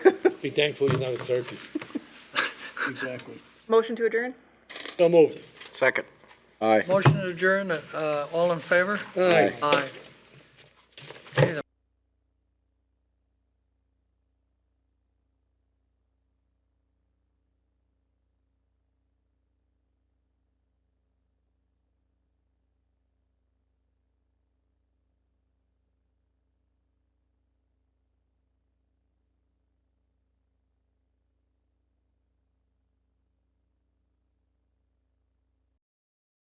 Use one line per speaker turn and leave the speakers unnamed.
Be thankful he's not a turkey.
Exactly.
Motion to adjourn?
So moved.
Second.
Motion to adjourn, uh, all in favor?
Aye.
Aye.